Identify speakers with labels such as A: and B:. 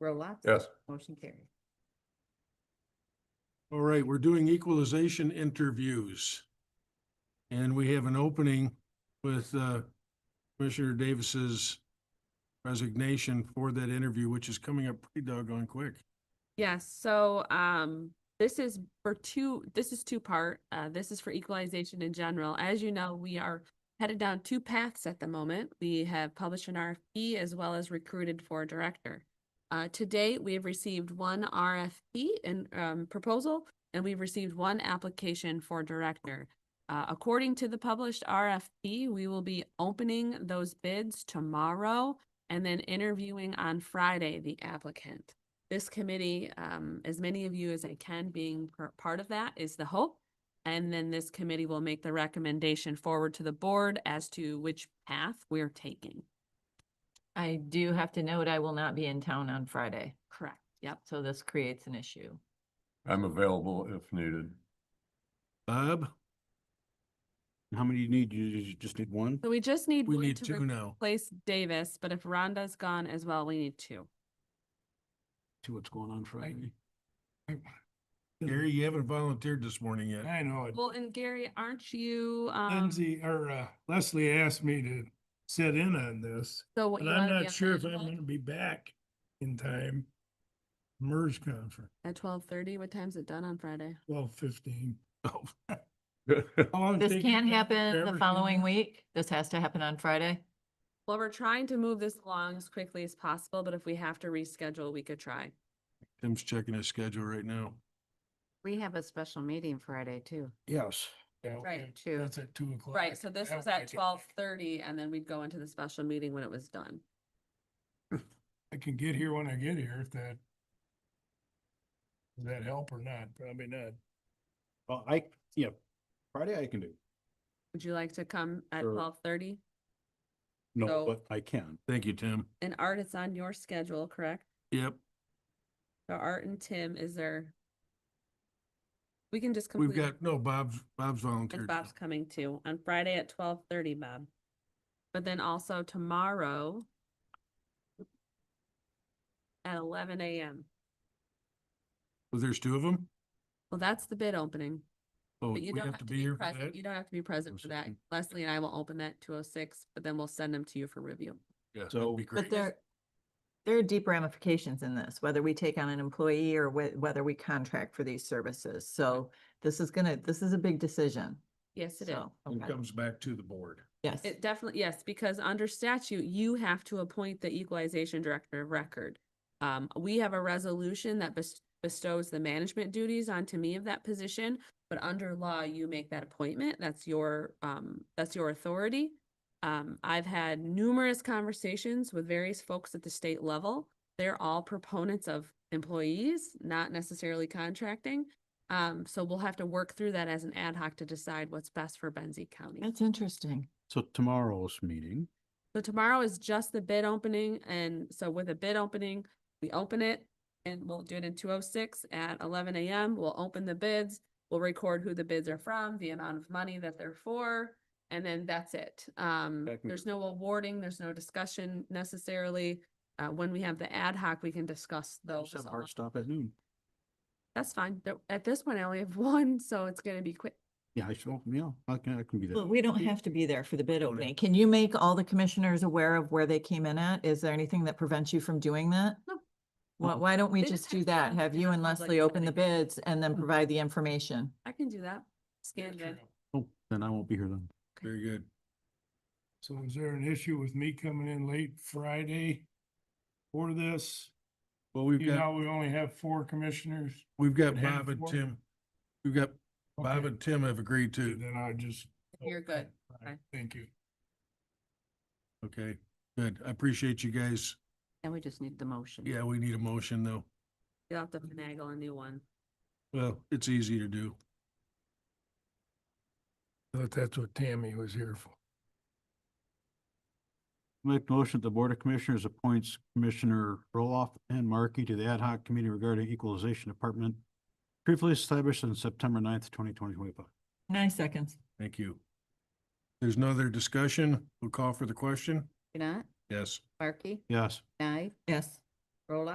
A: Roll
B: Yes.
A: Motion carried.
C: All right, we're doing equalization interviews. And we have an opening with uh, Commissioner Davis's resignation for that interview, which is coming up pretty doggone quick.
D: Yes, so um, this is for two, this is two-part. Uh, this is for equalization in general. As you know, we are headed down two paths at the moment. We have published an RFP as well as recruited for a director. Uh, to date, we have received one RFP and um, proposal, and we've received one application for director. Uh, according to the published RFP, we will be opening those bids tomorrow and then interviewing on Friday the applicant this committee, um, as many of you as I can being per- part of that is the hope. And then this committee will make the recommendation forward to the board as to which path we're taking.
E: I do have to note, I will not be in town on Friday,
D: Correct. Yep.
E: so this creates an issue.
B: I'm available if needed.
C: Bob,
F: How many do you need? You you just need one?
D: So we just need
C: we
D: one
C: need
D: to
C: two now.
D: replace Davis, but if Rhonda's gone as well, we need two.
F: See what's going on Friday.
C: Gary, you haven't volunteered this morning yet.
G: I know. it.
D: Well, and Gary, aren't you, um,
G: Lindsay or uh, Leslie asked me to sit in on this,
D: so what
G: but
D: you
G: I'm
D: wanna be
G: not
D: on
G: sure if
D: the
G: I'm
D: 12th?
G: gonna be back in time. MERS conference,
D: At twelve thirty, what time's it done on Friday?
G: twelve fifteen.
E: This can't happen the following week. This has to happen on Friday.
D: Well, we're trying to move this along as quickly as possible, but if we have to reschedule, we could try.
C: Tim's checking his schedule right now.
A: We have a special meeting Friday too.
F: Yes.
D: Right,
A: two.
G: That's at two o'clock.
D: Right, so this
G: That
D: was
G: way I
D: at
G: can-
D: twelve thirty, and then we'd go into the special meeting when it was done.
G: I can get here when I get here if that. Does that help or not? Probably not.
F: Well, I, yeah, Friday I can do.
D: Would you like to come at
F: Sure.
D: twelve thirty?
F: No,
D: So-
F: but I can.
C: Thank you, Tim.
D: And Art, it's on your schedule, correct?
C: Yep,
D: So Art and Tim, is there? We can just
C: we've
D: complete.
C: got, no, Bob's, Bob's
D: And
C: volunteered. now.
D: Bob's coming too, on Friday at twelve thirty, Bob. But then also tomorrow at eleven AM.
C: Well, There's two of them.
D: Well, that's the bid opening.
C: Oh,
D: But
C: we
D: you don't
C: have to be here for
D: present-
C: that. Oh,
D: You don't have to be present for that.
F: Second.
D: Leslie and I will open that two oh six, but then we'll send them to you for review.
C: Yeah, that'd
F: So-
C: be
E: But
C: great.
E: there, there are deep ramifications in this, whether we take on an employee or whe- whether we contract for these services. So this is gonna, this is a big decision.
D: Yes, it is.
E: So,
C: It
E: okay.
C: comes back to the board.
E: Yes,
D: It definitely, yes, because under statute, you have to appoint the equalization director of record. Um, we have a resolution that bes- bestows the management duties onto me of that position, but under law, you make that appointment. That's your, um, that's your authority. Um, I've had numerous conversations with various folks at the state level. They're all proponents of employees, not necessarily contracting. Um, so we'll have to work through that as an ad hoc to decide what's best for Benzie County.
E: that's interesting.
F: So tomorrow's meeting,
D: So tomorrow is just the bid opening, and so with a bid opening, we open it and we'll do it in two oh six at eleven AM. We'll open the bids. We'll record who the bids are from, the amount of money that they're for, and then that's it. Um,
F: Technic-
D: there's no awarding, there's no discussion necessarily. Uh, when we have the ad hoc, we can discuss
F: I'll
D: those.
F: have
D: along.
F: hard stop at noon.
D: That's fine. There- At this point, I only have one, so it's gonna be quick.
F: Yeah, I should, yeah, I can, I can be there.
E: But we don't have to be there for the
D: Oh,
E: bid opening. Can you make all the commissioners aware of where they came in at? Is there anything that prevents you from doing that?
D: No.
E: Why, why don't we
D: They
E: just
D: just
E: do
D: have to
E: that?
D: come
E: Have
D: in
E: you
D: a
E: and
D: public
E: Leslie open the
D: building.
E: bids and then provide the information?
D: I can do that. Scan bid.
F: Oh, then I won't be here then.
C: Very good.
G: So is there an issue with me coming in late Friday? For this,
C: Well, we've
G: you
C: got.
G: know, we only have four commissioners.
C: We've got
G: Have
C: Bob and
G: four?
C: Tim, we've got Bob
G: Okay.
C: and Tim have agreed
G: Okay,
C: to,
G: Then I just.
D: You're good.
G: Okay, fine.
D: Okay.
G: Thank you.
C: okay, good, I appreciate you guys,
A: And we just need the motion.
C: yeah, we need a motion though,
D: You'll have to finagle a new one.
C: well, it's easy to do.
G: Thought that's what Tammy was here for.
F: Make motion that the Board of Commissioners appoints Commissioner Roloff and Markey to the Ad hoc Committee regarding Equalization Department, briefly established on September 9th, twenty twenty twenty-five.
E: Nine seconds.
C: Thank you. There's no other discussion, we'll call for the question,
A: You're not?
C: yes.
A: Markey?
F: Yes.
A: Nye?
E: Yes.
A: Roll